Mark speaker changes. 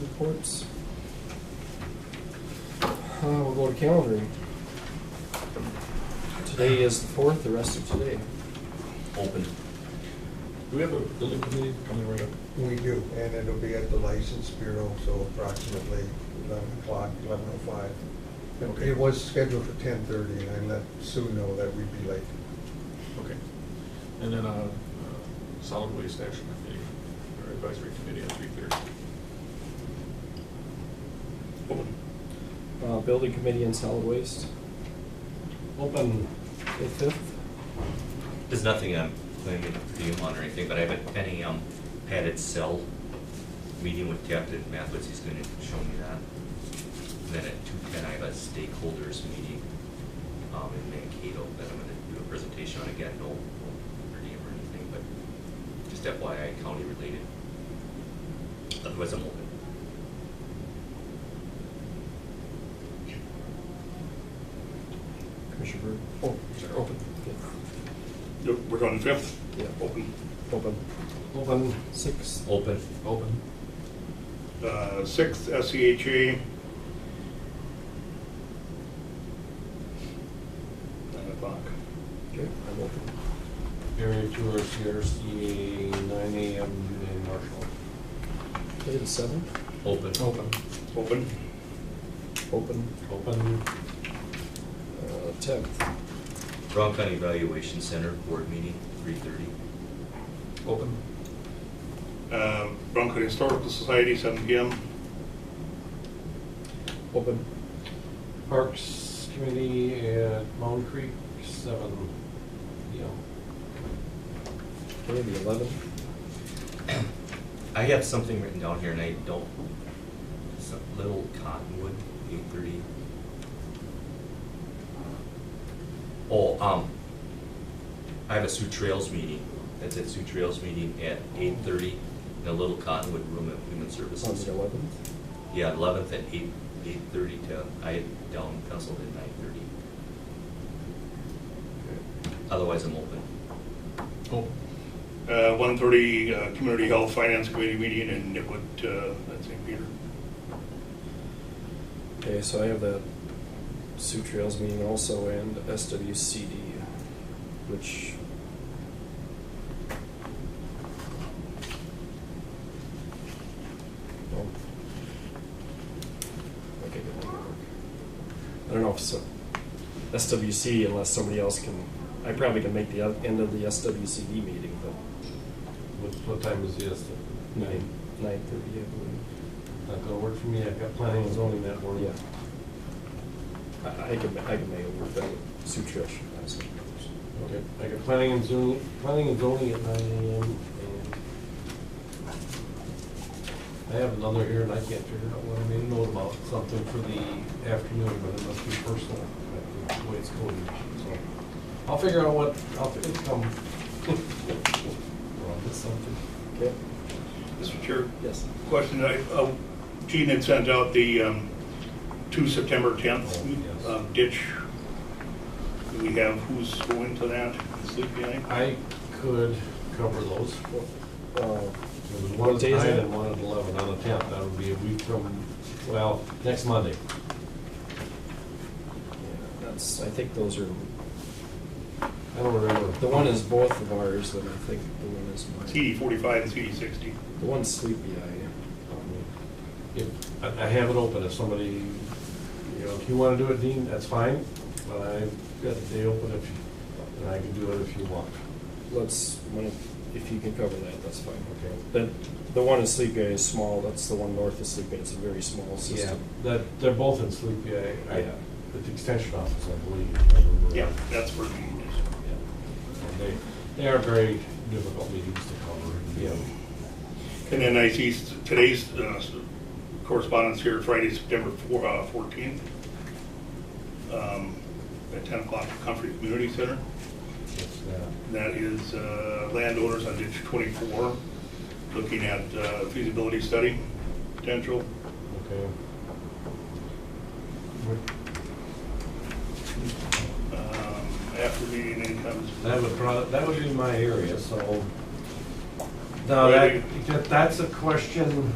Speaker 1: reports. Uh, We'll go to calendaring. Today is the fourth, the rest of today.
Speaker 2: open.
Speaker 3: Do we have a building committee coming right up?
Speaker 4: We do, and it'll be at the License Bureau, so approximately eleven o'clock, eleven oh five.
Speaker 3: Okay.
Speaker 4: It was scheduled for ten thirty, and I let Sue know that we'd be late.
Speaker 3: Okay. And then uh, uh, solid waste action committee, or advisory committee at three thirty. Open.
Speaker 1: Uh, Building committee and solid waste,
Speaker 5: Open,
Speaker 1: the fifth.
Speaker 2: There's nothing I'm planning to do on or anything, but I have a penny um padded cell meeting with Captain Mathis, he's gonna show me that. And Then at two ten, I have a stakeholders meeting um in Mankato that I'm gonna do a presentation on again, no no per diem or anything, but just FYI county related. Otherwise, I'm open.
Speaker 1: Commissioner Bird.
Speaker 3: Oh, sorry, open.
Speaker 6: Yep, We're on the fifth,
Speaker 1: Yeah,
Speaker 6: open,
Speaker 1: open.
Speaker 5: open,
Speaker 1: Sixth,
Speaker 2: Open.
Speaker 3: Open.
Speaker 6: uh, sixth, SEHA. Nine o'clock.
Speaker 1: okay, I'm open.
Speaker 5: Barry Tour, CRC, nine AM, in Marshall.
Speaker 1: Okay, the seventh,
Speaker 2: Open.
Speaker 3: Open.
Speaker 6: Open,
Speaker 1: open.
Speaker 5: Open,
Speaker 1: Uh, Tenth,
Speaker 2: Brown County Evaluation Center Board Meeting, three thirty.
Speaker 3: Open.
Speaker 6: uh, Bronco Historical Society, seven PM.
Speaker 1: open.
Speaker 5: Parks Committee at Mound Creek, seven PM.
Speaker 1: Okay, the eleventh,
Speaker 2: I have something written down here and I don't, some little cottonwood, eight thirty. Oh, um, I have a Sioux Trails meeting, that's at Sioux Trails meeting at eight thirty in a little cottonwood room at Human
Speaker 1: on
Speaker 2: Services.
Speaker 1: the eleventh.
Speaker 2: Yeah, eleventh at eight, eight thirty to, I had down penciled at nine thirty. Otherwise, I'm open.
Speaker 3: Open.
Speaker 6: Uh, one thirty, uh, Community Health Finance Committee meeting in Nicollet, uh, at St. Peter.
Speaker 1: Okay, so I have the Sioux Trails meeting also and SWCD, which Well, Oh. okay, good. I don't know if so, SWC unless somebody else can, I probably can make the oth- end of the SWCD meeting, but
Speaker 5: What, what time is the estimate?
Speaker 1: nine, nine thirty, I
Speaker 5: Not gonna work for me, I've got planning and zoning that
Speaker 1: believe.
Speaker 5: morning.
Speaker 1: Yeah. I, I can, ma- I can make it work, that would, Sioux Trails should have some.
Speaker 5: Okay, I got planning and zoning, planning and zoning at nine AM and I have another here and I can't figure out what I made a note about, something for the afternoon, but it must be personal, that's the way it's coded, so. I'll figure out what, I'll, fi- it'll come. Or I'll get something.
Speaker 1: Okay,
Speaker 6: Mr. Chair,
Speaker 1: yes.
Speaker 6: question, I, uh, Gene had sent out the, um, two September tenth
Speaker 5: Oh, yes.
Speaker 6: um, ditch. Do we have who's going to that, sleep behind?
Speaker 5: I could cover those.
Speaker 1: Uh,
Speaker 5: There was
Speaker 1: What
Speaker 5: one at
Speaker 1: day is
Speaker 5: nine
Speaker 1: that?
Speaker 5: and one at eleven on the tenth, that would be a week from, well, next Monday.
Speaker 1: yeah, That's, I think those are,
Speaker 5: I don't remember.
Speaker 1: the one is both of ours, and I think the one is mine.
Speaker 6: CD forty-five and CD sixty.
Speaker 1: The one's Sleepy Eye. Uh,
Speaker 5: If, I I have it open, if somebody, you know, if you wanna do it, Dean, that's fine, but I've got the day open if, you- and I can do it if you want.
Speaker 1: Let's, when- if you can cover that, that's fine, okay. But the one in Sleepy Eye is small, that's the one north of Sleepy Eye, it's a very small system.
Speaker 5: That, they're both in Sleepy, I, I,
Speaker 1: Yeah.
Speaker 5: at the extension office, I believe. if I remember
Speaker 6: Yeah,
Speaker 5: right.
Speaker 6: that's where Gene is.
Speaker 5: Yeah. And They, they are very difficult meetings to cover, you know.
Speaker 6: And then I see s- today's uh, s- correspondence here, Friday, September four- uh, 14th, um, at 10 o'clock, Comfrey Community Center.
Speaker 5: it's, uh,
Speaker 6: And That is uh, landowners on ditch 24, looking at uh, feasibility study potential.
Speaker 5: Okay.
Speaker 6: Um, After meeting incomes.
Speaker 5: That would probably, that would be my area, so.
Speaker 6: Now,
Speaker 5: No,
Speaker 6: that-
Speaker 5: that, that's a question